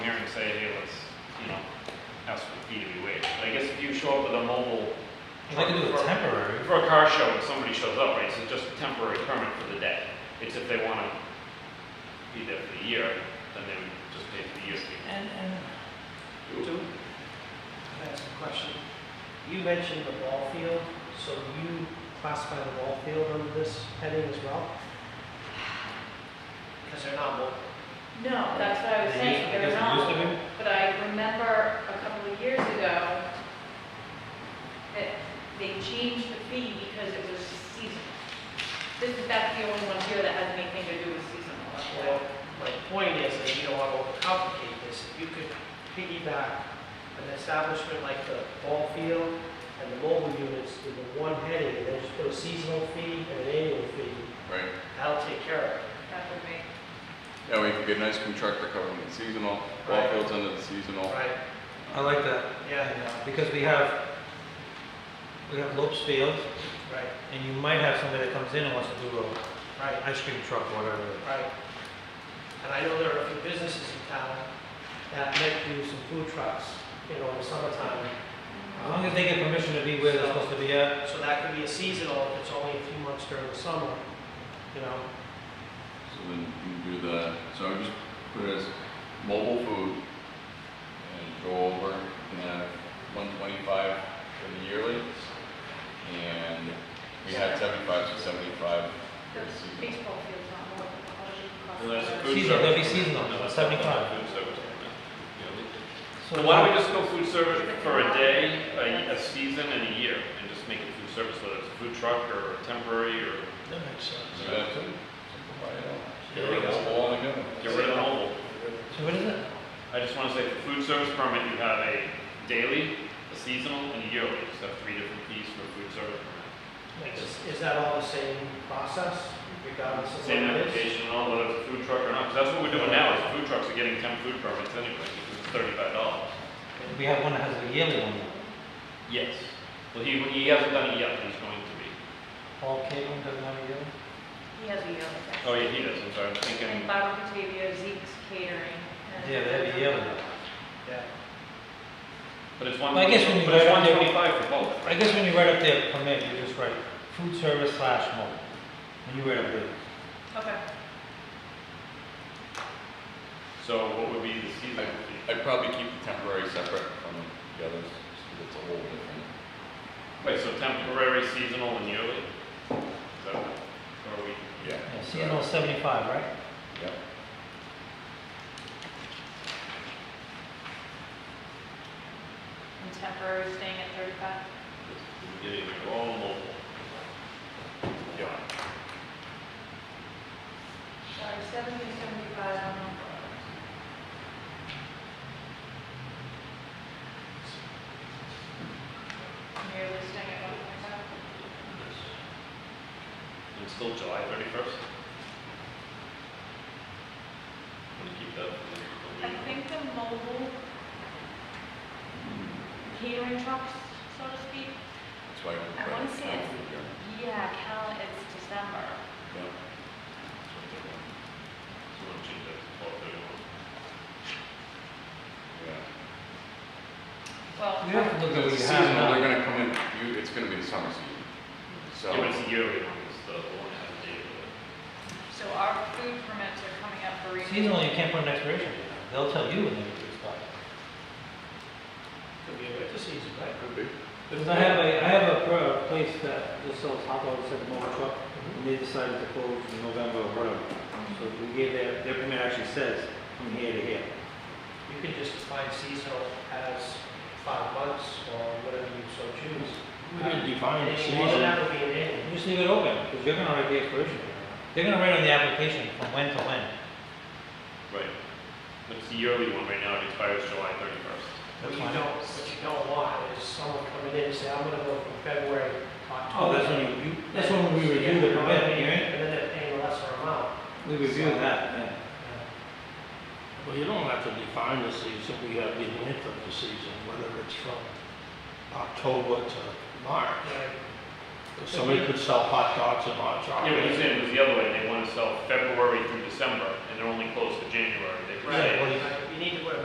say, hey, let's, you know, ask for the fee to be waived. But I guess if you show up with a mobile. They could do it truck for- temporary. For a car show and somebody shows up, right, it's just a temporary permit for the day. It's if they wanna be there for the year, then they would just pay for the year's fee. And, and Two, I ask a question. You mentioned the ball field, so you classify the ball field under this heading as well? Because they're not mobile. No, that's what I was They saying, used- I they're guess they used to not, but I remember a couple of years ago that they changed the fee because it was seasonal. This, that's the only one here that has anything to do with seasonal. that's why. Well, my point is that you don't want to overcomplicate this. If you could piggyback an establishment like the ball field and the mobile units into one heading, and then just put a seasonal fee and an annual fee, Right. that'll take care of it. That would make, That way you can get a nice contractor covering the seasonal, ball Right. fields under the seasonal. Right, I like that, yeah, because we have, we have Lopes Field, right, and you might have somebody that comes in and wants to do a right. ice cream truck or whatever. Right. And I know there are a few businesses in town that might do some food trucks, you know, in the summertime. As long as they get permission to be where they're supposed to be at, So that could be a seasonal, if it's only a few months during the summer, you know, So then you can do the, so I would just put it as mobile food and go over, you can have one twenty-five for the yearly. And we had seventy-five to seventy-five for the the seasonal. baseball field's not more than a hundred and cost. Unless a food Seasonal, that'd be service- seasonal, unless 75. food service permit. You know, So so why don't we just go food service for a day, a, a season and a year, and just make it food service, whether it's a food truck or temporary or That makes sense. So that's it. Simplify it all. Get Get rid rid of of all and go. get rid of the mobile. So what is it? I just wanna say for food service permit, you have a daily, a seasonal, and a yearly, You just have three different fees for food service permit. is, is that all the same process regardless of what Same it is? application and all, whether it's a food truck or not, 'cause that's what we're doing now, is food trucks are getting ten food permits anyway, because it's thirty-five dollars. We have one that has a yearly one, Yes. Well, he, he hasn't done it yet, but he's going to be. Paul Caitlin doesn't have a yearly. He has a yearly pass. Oh, yeah, he does, I'm sorry, I'm And thinking, Bobby Patavia, Zeke's Catering. and- Yeah, they have a yearly. Yeah, but it's one, Well, but I guess when you it's go one down there- twenty-five for both. I guess when you write up their permit, you just write food service slash mobile, when you write up yours. Okay. So what would be the seasonal fee? I'd probably keep the temporary separate from the others, just 'cause it's a whole different. Wait, so temporary, seasonal, and yearly? Is that, or are we? Yeah. Yeah, so- seasonal seventy-five, right? Yep. And temporary staying at thirty-five? Getting all mobile. Yep. Sorry, seventy, seventy-five, I don't know. You're listing it one more time? And it's still July thirty-first? Gonna keep that for the- the I week. think the mobile catering trucks, so to speak, That's why. I wanna see it. yeah, count it's December. So Yep. we'll change that to twelve thirty-one. Yeah. Well, You have to look at Because what it's you have seasonal, now. they're gonna come in, you, it's gonna be the summer season. So, Yeah, but it's a yearly one, it's the the one that has a date. of it. so our food permits are coming up for renewal. Seasonal, you can't put an expiration date on. it. They'll tell you when they need to expire. could be a winter season, right? could be. Because I have a, I have a pro- a place that just sells hot dogs at the mobile truck, and they decided to close in November or whatever. So we gave their, their permit actually says from here to here. You could just define seasonal as five months or whatever you so choose. We didn't define And the that season. would be an annual. You Just leave it open, because you're gonna write the expiration date. They're gonna write on the application from when to when. Right. But it's a yearly one right now, it expires July thirty-first. What That's you fine. don't, what you don't want is someone coming in and say, I'm gonna go from February to Oh, October. that's when you, you- that's when we review the permit, right? And then they're paying a lesser amount. We review that, yeah. Well, you don't have to define the season, we have the length of the season, whether it's from October to March. Right, Somebody could sell hot dogs and hot Yeah, but he's chocolate. saying it was the other way, they wanna sell February through December, and they're only closed for January, they could say. Right. Right, you need to put a